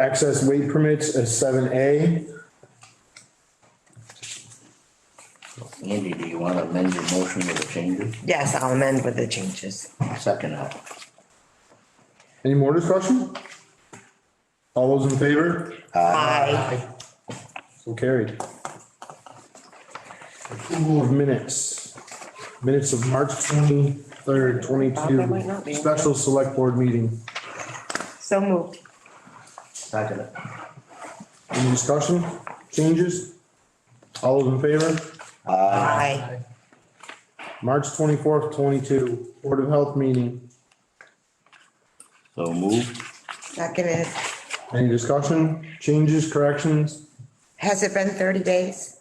Excess weight permits is seven A. Andy, do you want to amend your motion with the changes? Yes, I'll amend with the changes. Second up. Any more discussion? All those in favor? Aye. So carried. Approval of minutes. Minutes of March twenty-third, twenty-two, special select board meeting. So moved. Second it. Any discussion? Changes? All those in favor? Aye. March twenty-fourth, twenty-two, Board of Health meeting. So moved. Seconded. Any discussion? Changes, corrections? Has it been thirty days?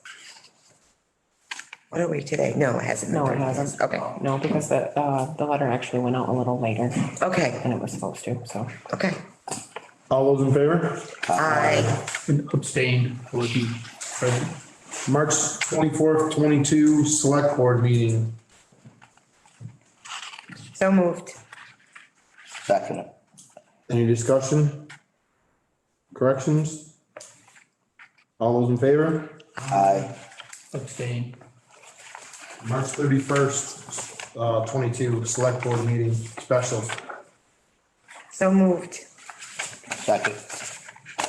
What are we today? No, it hasn't been No, it thirty days. hasn't. Okay, No, because the, uh, the letter actually went out a little later okay, than it was supposed to, so. okay. All those in favor? Aye. And abstain, I wasn't present. March twenty-fourth, twenty-two, Select Board meeting. So moved. Second it. Any discussion? Corrections? All those in favor? Aye. abstain, March thirty-first, uh, twenty-two, Select Board meeting, special. So moved. Second.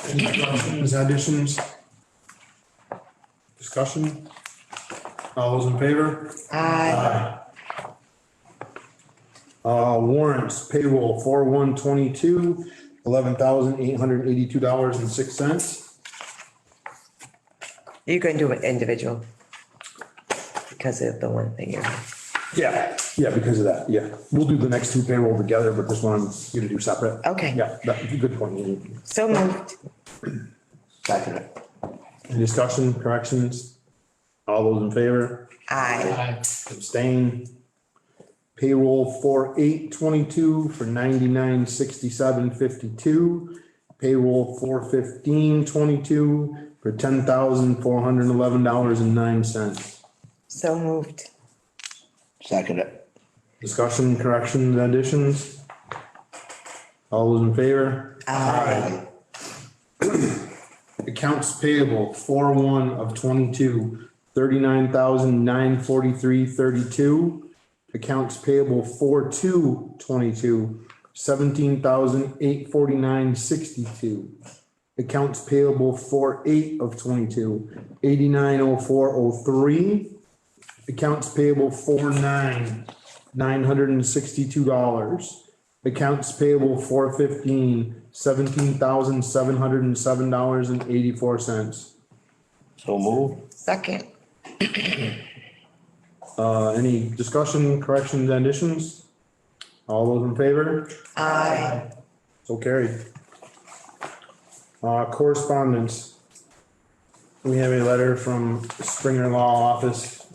Any corrections, additions? Discussion? All those in favor? Aye. Uh, warrants payroll four one twenty-two, eleven thousand eight hundred eighty-two dollars and six cents. You can do it individual. Because of the one thing you're, Yeah, yeah, because of that, yeah. We'll do the next two payroll together, but this one I'm gonna do separate. Okay. Yeah, that's a good point. Ian. so moved. Second it. Any discussion, corrections? All those in favor? Aye. aye, Abstain. Payroll four eight twenty-two for ninety-nine sixty-seven fifty-two. Payroll four fifteen twenty-two for ten thousand four hundred eleven dollars and nine cents. So moved. Second it. Discussion, corrections, additions? All those in favor? Aye. Accounts payable, four one of twenty-two, thirty-nine thousand nine forty-three thirty-two. Accounts payable, four two twenty-two, seventeen thousand eight forty-nine sixty-two. Accounts payable, four eight of twenty-two, eighty-nine oh four oh three. Accounts payable four nine, nine hundred and sixty-two dollars. Accounts payable four fifteen, seventeen thousand seven hundred and seven dollars and eighty-four cents. So moved. Second. Uh, any discussion, corrections, and additions? All those in favor? Aye. So carried. Uh, correspondence. We have a letter from Springer Law Office,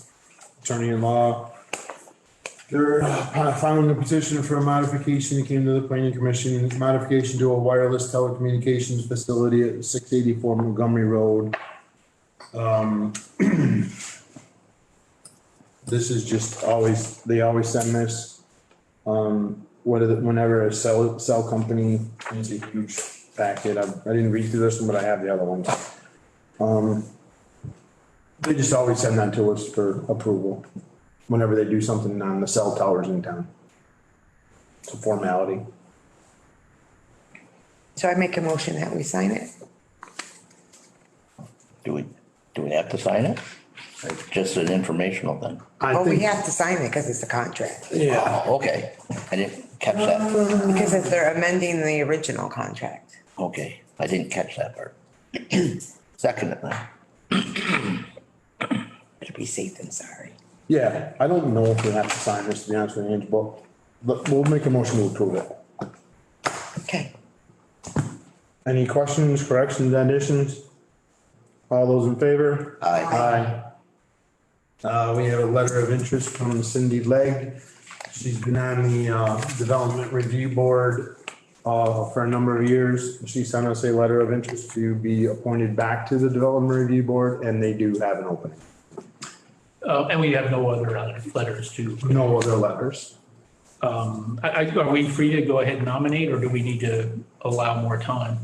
attorney-in-law. They're uh, filing a petition for a modification that came to the planning commission, modification to a wireless telecommunications facility at six eighty-four Montgomery Road. Um, This is just always, they always send this um, what is it, whenever a cell, cell company, it's a huge packet, I, I didn't read through this one, but I have the other ones. Um, they just always send that to us for approval, whenever they do something on the cell towers in town. It's a formality. So I make a motion that we sign it? Do we, do we have to sign it? Or Just an informational thing? I Oh, we think- have to sign it because it's a contract. Yeah, Oh, Okay. I didn't catch that. Because if they're amending the original contract. Okay. I didn't catch that part. Second it then. Better be safe than sorry. yeah, I don't know if we have to sign this, to be honest with you, Ange, but, but we'll make a motion to approve it. Okay. Any questions, corrections, additions? All those in favor? Aye. Aye. Uh, we have a letter of interest from Cindy Legg. She's been on the, uh, Development Review Board, uh, for a number of years. She sent us a letter of interest to be appointed back to the Development Review Board, and they do have an opening. Uh, and we have no other other letters to, No other letters. um, I, I, are we free to go ahead and nominate, or do we need to allow more time?